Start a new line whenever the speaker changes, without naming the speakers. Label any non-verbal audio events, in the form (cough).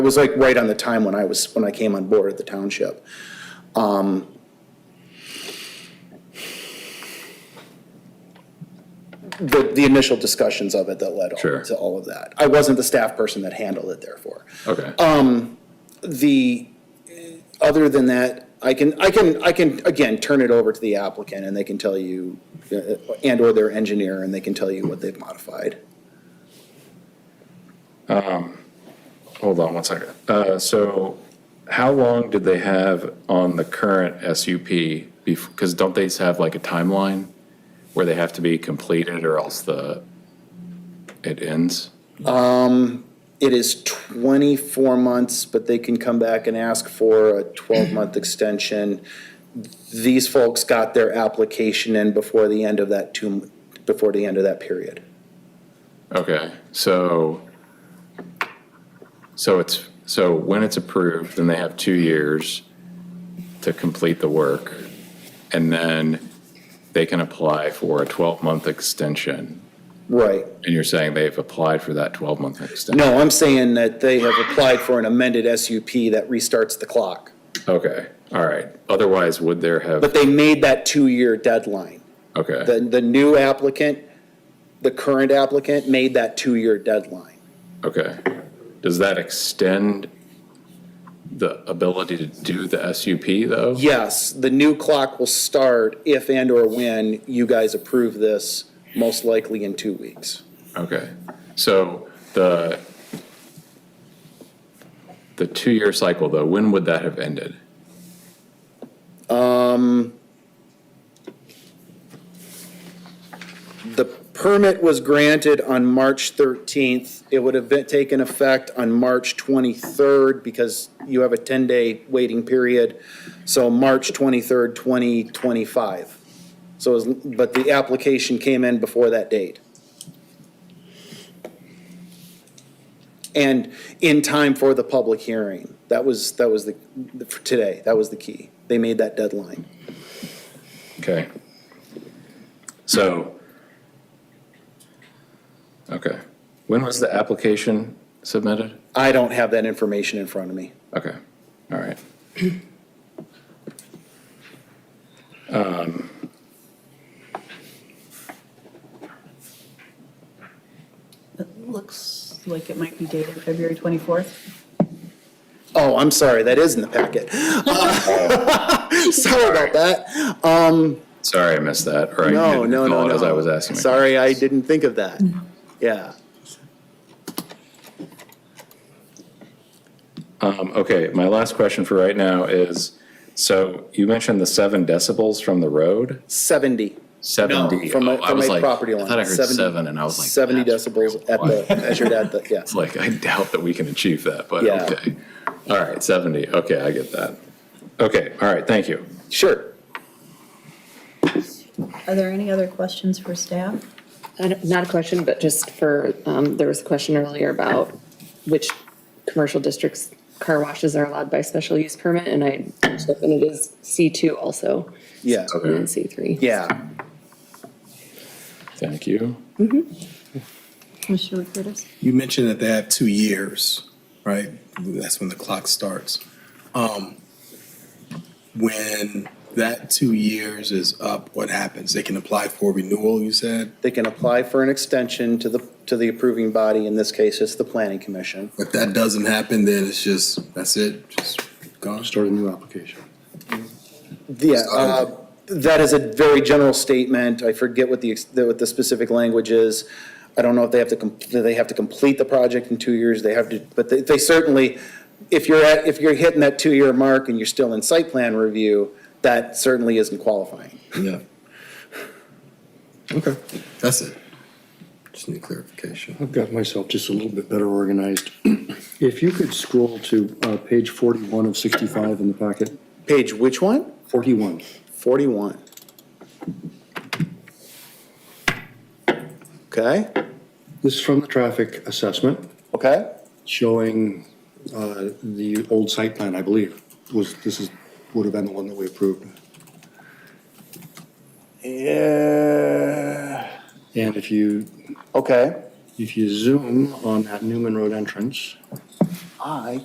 It was like right on the time when I was, when I came on board at the township. Um, The, the initial discussions of it that led
Sure.
all- to all of that. I wasn't the staff person that handled it therefore. Um,
Okay.
The, other than that, I can, I can, I can, again, turn it over to the applicant and they can tell you, uh, and/or their engineer, and they can tell you what they've modified.
Hold on one second. Uh, so how long did they have on the current SUP? Because don't they have like a timeline where they have to be completed or else the, it ends?
It is twenty-four months, but they can come back and ask for a twelve-month extension. These folks got their application in before the end of that two, before the end of that period.
Okay, so, so it's, so when it's approved, then they have two years to complete the work. And then they can apply for a 12-month extension.
Right.
And you're saying they've applied for that 12-month extension?
No, I'm saying that they have applied for an amended SUP that restarts the clock.
Okay, all right. Otherwise, would there
But
have,
they made that two-year deadline. The,
okay,
the new applicant, the current applicant made that two-year deadline.
okay. Does that extend the ability to do the SUP, though?
Yes, the new clock will start if and/or when you guys approve this, most likely in two weeks.
Okay, so the, the two-year cycle, though, when would that have ended?
The permit was granted on March 13th. It would have been, taken effect on March 23rd because you have a 10-day waiting period. So March 23rd, 2025. So, it was- but the application came in before that date. And in time for the public hearing. That was, that was the, for today, that was the key. They made that deadline.
Okay. So, okay, when was the application submitted?
I don't have that information in front of me.
Okay, all right. Um,
It looks like it might be dated February 24th.
Oh, I'm sorry, that is in the packet.
Oh.
(laughs) Sorry about that.
Sorry, I missed that, or I
No,
didn't
no,
recall
no,
it
no.
as I was asking. my
Sorry, I didn't think of that. Yeah.
Um, Okay, my last question for right now is, so you mentioned the seven decibels from the road?
70.
Seventy?
No, From
Oh,
my,
I
from
was
my
like-
property line.
I thought I heard
70
seven, and I was like.
70
that's
decibels
real
at the, (laughs)
quiet.
measured at the, yeah.
It's like, I doubt that we can achieve that, but
Yeah.
okay. All right, seventy, okay, I get that. Okay, all right, thank you.
Sure.
Are there any other questions for staff?
I don't- Not a question, but just for, um, there was a question earlier about which commercial districts car washes are allowed by special use permit, and I, looked up and it is C2 also,
Yeah,
and then C3.
yeah.
Thank you.
Commissioner Curtis?
You mentioned that they have two years, right? That's when the clock starts. Um, When that two years is up, what happens? They can apply for renewal, you said,
They can apply for an extension to the, to the approving body. In this case, it's the planning commission.
if that doesn't happen, then it's just, that's it, just gone.
Start a new application.
Yeah, uh, that is a very general statement. I forget what the, ex- the- what the specific language is. I don't know if they have to, com- do they have to complete the project in two years, they have to, but they- they certainly, if you're at, if you're hitting that two-year mark and you're still in site plan review, that certainly isn't qualifying.
Yeah. Okay, that's it. Just need clarification.
I've got myself just a little bit better organized. (clears throat) If you could scroll to uh, page 41 of 65 in the packet,
Page which one?
41.
Forty-one. Okay,
This is from the traffic assessment
okay,
showing uh, the old site plan, I believe, was, this is, would have been the one that we approved. Yeah. And if you,
okay.
if you zoom on that Newman Road entrance.
I